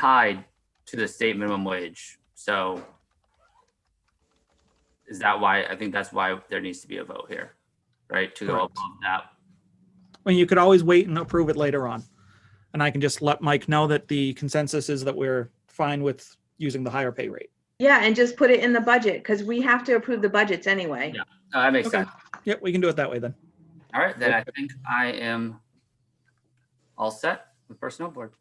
tied to the state minimum wage. So is that why, I think that's why there needs to be a vote here, right? To go Correct. above that. I mean, you could always wait and approve it later on. And I can just let Mike know that the consensus is that we're fine with using the higher pay rate. Yeah, and just put it in the budget, because we have to approve the budgets anyway. Yeah. Oh, That makes Okay. sense. Yep, we can do it that way then. All right, then I think I am all set with personnel board.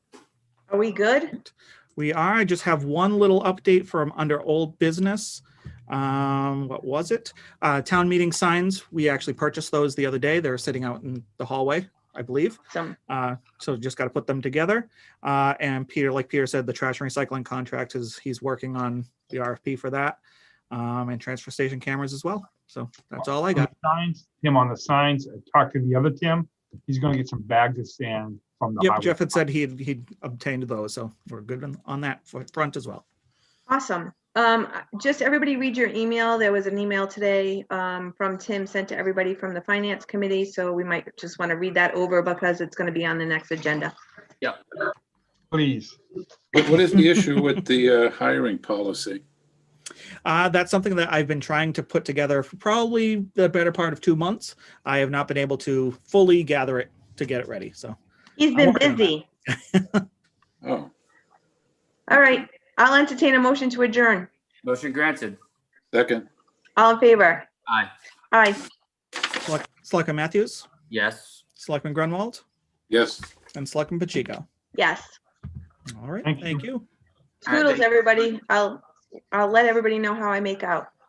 Are we good? We are. I just have one little update from under old business. Um, what was it? Uh, town meeting signs. We actually purchased those the other day. They're sitting out in the hallway, I believe. Some, Uh, so just got to put them together. Uh, and Peter, like Peter said, the trash and recycling contract is, he's working on the RFP for that. Um, and transfer station cameras as well. So that's all I On got. the Signs, Tim on the signs, I talked to the other Tim, he's gonna get some bags of sand from the Yep, highway. Jeff had said he'd, he'd obtained those, so we're good on- on that f- front as well. awesome. Um, just everybody read your email. There was an email today, um, from Tim sent to everybody from the finance committee, so we might just want to read that over because it's going to be on the next agenda. Please, What what is the issue with the uh, hiring policy? Uh, that's something that I've been trying to put together for probably the better part of two months. I have not been able to fully gather it to get it ready, so. He's I'm been working on that. busy. Oh, All right, I'll entertain a motion to adjourn. Motion granted. second, All in favor? Aye, Aye. Select- Selectman Matthews, yes. Selectman Grunwald, yes. and Selectman Pacheco. Yes. All right, Thank you. thank you. All right, Toodles, thank- everybody. I'll, I'll let everybody know how I make out.